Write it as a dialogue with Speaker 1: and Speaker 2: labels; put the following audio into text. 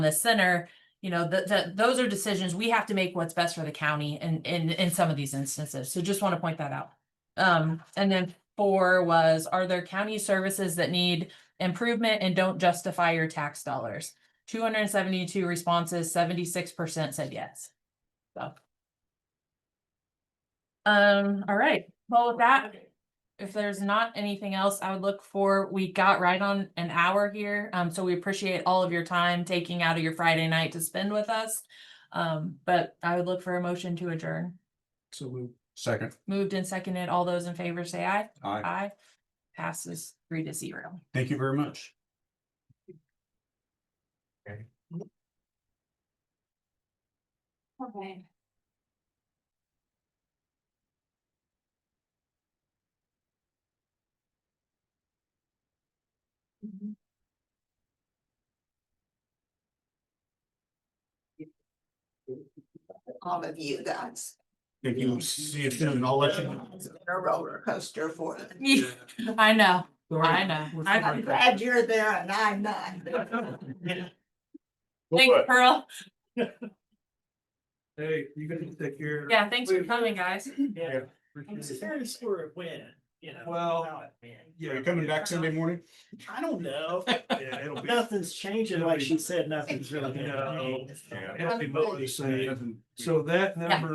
Speaker 1: the center, you know, that, that, those are decisions, we have to make what's best for the county in, in, in some of these instances, so just want to point that out. Um, and then four was, are there county services that need improvement and don't justify your tax dollars? Two hundred and seventy-two responses, seventy-six percent said yes. So. Um, all right, well, with that, if there's not anything else, I would look for, we got right on an hour here. Um, so we appreciate all of your time taking out of your Friday night to spend with us. Um, but I would look for a motion to adjourn.
Speaker 2: So moved. Second.
Speaker 1: Moved and seconded. All those in favor say aye.
Speaker 2: Aye.
Speaker 1: Aye. Passes three to zero.
Speaker 2: Thank you very much.
Speaker 1: Okay.
Speaker 3: all of you guys.
Speaker 2: Thank you. See you soon. I'll let you. know.
Speaker 3: It's been A roller coaster for them.
Speaker 1: I know, I know.
Speaker 3: I'm
Speaker 1: I-
Speaker 3: glad you're there and I'm not.
Speaker 1: Thanks, Pearl.
Speaker 4: Hey, you can take care.
Speaker 1: Yeah, thanks for coming, guys.
Speaker 4: Yeah.
Speaker 5: I'm serious for a win, you know.
Speaker 4: Well,
Speaker 5: how it went.
Speaker 2: Are you coming back Sunday morning?
Speaker 5: I don't know.
Speaker 4: Yeah, it'll be,
Speaker 5: Nothing's changing, like she said, nothing's really.
Speaker 4: No.
Speaker 5: gonna change.
Speaker 4: it'll be mostly the same. So that number